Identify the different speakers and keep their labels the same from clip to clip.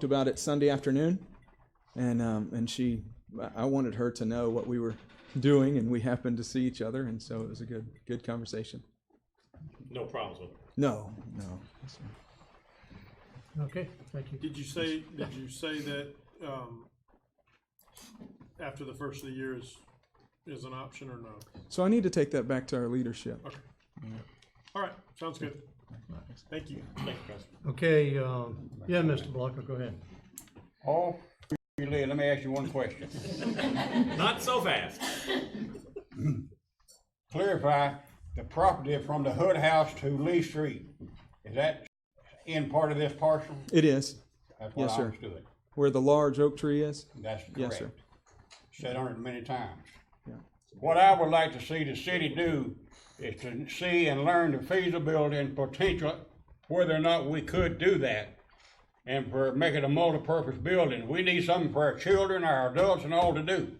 Speaker 1: talked about it Sunday afternoon, and um, and she, I- I wanted her to know what we were doing, and we happened to see each other, and so it was a good good conversation.
Speaker 2: No problems with it.
Speaker 1: No, no,
Speaker 3: Okay, thank you.
Speaker 4: Did you say, did you say that, um, after the first of the year is, is an option or no?
Speaker 1: so I need to take that back to our leadership.
Speaker 4: Okay. All right, sounds good. Thank you.
Speaker 2: Thank you, Councilman.
Speaker 3: Okay, um, yeah, Mr. Blocker, go ahead.
Speaker 5: Oh, you live, let me ask you one question.
Speaker 2: Not so fast.
Speaker 5: Clarify the property from the Hood House to Lee Street. Is that in part of this parcel?
Speaker 1: It is
Speaker 5: That's what
Speaker 1: Yes,
Speaker 5: I
Speaker 1: sir.
Speaker 5: understood.
Speaker 1: where the large oak tree is.
Speaker 5: That's
Speaker 1: Yes, sir.
Speaker 5: correct. Said on it many times.
Speaker 1: Yeah.
Speaker 5: What I would like to see the city do is to see and learn the feasibility and potential, whether or not we could do that. And for, make it a multipurpose building. We need something for our children, our adults and all to do.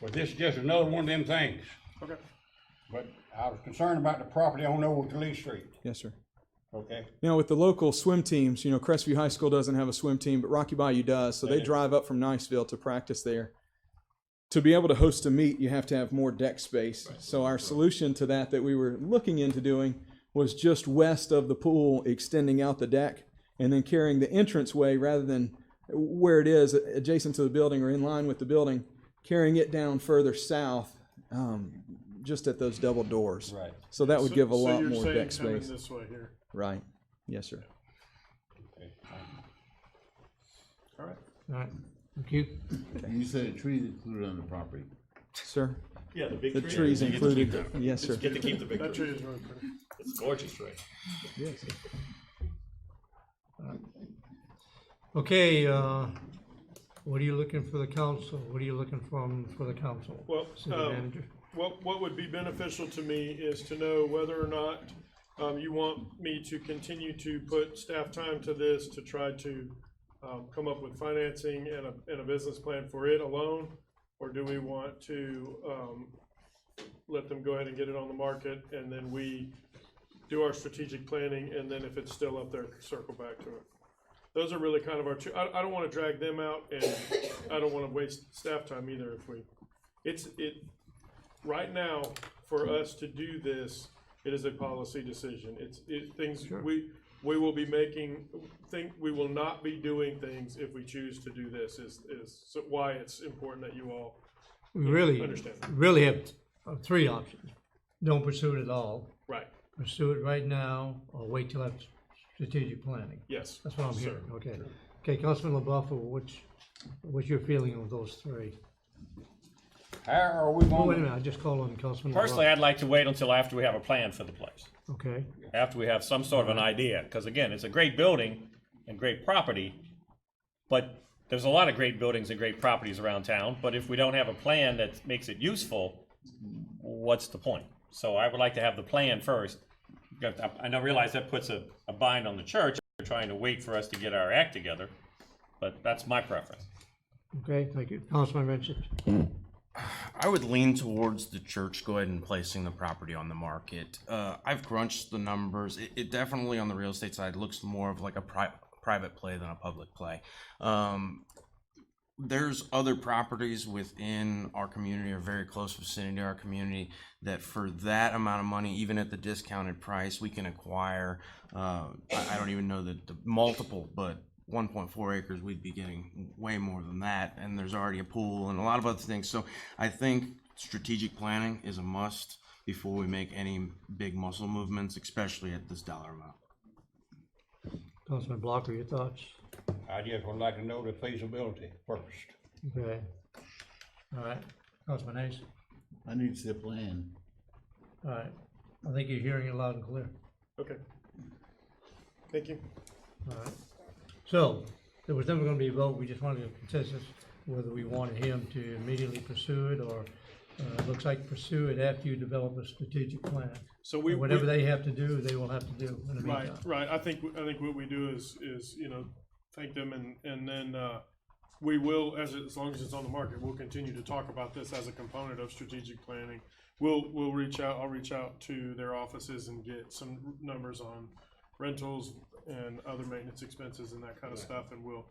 Speaker 5: But this is just another one of them things.
Speaker 4: Okay.
Speaker 5: But I was concerned about the property on Old Lee Street,
Speaker 1: Yes, sir.
Speaker 5: okay?
Speaker 1: You know, with the local swim teams, you know, Crestview High School doesn't have a swim team, but Rocky Bayou does. So they drive up from Niceville to practice there. To be able to host a meet, you have to have more deck space. So our solution to that that we were looking into doing was just west of the pool, extending out the deck and then carrying the entranceway rather than where it is adjacent to the building or in line with the building, carrying it down further south, um, just at those double doors.
Speaker 5: Right.
Speaker 1: So that would give a
Speaker 4: So- so
Speaker 1: lot
Speaker 4: you're
Speaker 1: more
Speaker 4: saying
Speaker 1: deck
Speaker 4: coming
Speaker 1: space.
Speaker 4: This way here.
Speaker 1: Right. Yes, sir.
Speaker 4: All right.
Speaker 3: All right, thank you.
Speaker 6: You said a tree is included on the property.
Speaker 1: Sir,
Speaker 2: Yeah, the big
Speaker 1: the
Speaker 2: tree.
Speaker 1: trees
Speaker 2: You get to keep
Speaker 1: included. Yes, sir.
Speaker 2: the- Get to keep the big
Speaker 4: That
Speaker 2: tree.
Speaker 4: tree is really pretty.
Speaker 2: It's a gorgeous tree.
Speaker 1: Yes.
Speaker 3: Okay, uh, what are you looking for the council? What are you looking from, for the council?
Speaker 4: Well,
Speaker 3: City
Speaker 4: um,
Speaker 3: manager?
Speaker 4: What, what would be beneficial to me is to know whether or not, um, you want me to continue to put staff time to this to try to, um, come up with financing and a, and a business plan for it alone? Or do we want to, um, let them go ahead and get it on the market and then we do our strategic planning and then if it's still up there, circle back to it? Those are really kind of our two, I, I don't wanna drag them out and I don't wanna waste staff time either if we, it's, it, right now, for us to do this, it is a policy decision. It's, it, things, we, we will be making, think, we will not be doing things if we choose to do this is, is so why it's important that you all
Speaker 3: We really,
Speaker 4: understand.
Speaker 3: really have uh, three options. Don't pursue it at all,
Speaker 4: Right,
Speaker 3: pursue it right now, or wait till after strategic planning.
Speaker 4: yes.
Speaker 3: That's what I'm
Speaker 4: sir.
Speaker 3: hearing, okay. Okay, Councilman LaBeouf, what's, what's your feeling on those three?
Speaker 5: How are
Speaker 3: Oh, wait
Speaker 5: we
Speaker 3: a
Speaker 5: going,
Speaker 3: minute, I just called on Councilman LaBeouf.
Speaker 2: Personally, I'd like to wait until after we have a plan for the place,
Speaker 3: Okay,
Speaker 2: after we have some sort of an idea. Because again, it's a great building and great property, but there's a lot of great buildings and great properties around town. But if we don't have a plan that makes it useful, what's the point? So I would like to have the plan first. Got- I- I know, realize that puts a, a bind on the church, They're trying to wait for us to get our act together, but that's my preference.
Speaker 3: okay, thank you. Councilman Vincent?
Speaker 7: I would lean towards the church go ahead and placing the property on the market. Uh, I've crunched the numbers. It, it definitely on the real estate side looks more of like a pri- private play than a public play. Um, there's other properties within our community or very close vicinity to our community that for that amount of money, even at the discounted price, we can acquire. Uh, I, I don't even know the, the multiple, but 1.4 acres, we'd be getting way more than that. And there's already a pool and a lot of other things. So I think strategic planning is a must before we make any big muscle movements, especially at this dollar amount.
Speaker 3: Councilman Blocker, your thoughts?
Speaker 5: I just would like to know the feasibility first.
Speaker 3: Okay. All right, Councilman Hayes?
Speaker 6: I need to see a plan.
Speaker 3: All right, I think you're hearing it loud and clear.
Speaker 4: Okay. Thank you.
Speaker 3: All right. So, there was never gonna be a vote, we just wanted a consensus whether we wanted him to immediately pursue it or, uh, looks like pursue it after you develop a strategic plan.
Speaker 4: So we.
Speaker 3: And Whatever
Speaker 4: we-
Speaker 3: they have to do, they will have to do in the
Speaker 4: Right,
Speaker 3: meantime.
Speaker 4: right. I think, I think what we do is, is, you know, thank them and, and then, uh, we will, as, as long as it's on the market, we'll continue to talk about this as a component of strategic planning. We'll, we'll reach out, I'll reach out to their offices and get some numbers on rentals and other maintenance expenses and that kind of stuff, and we'll,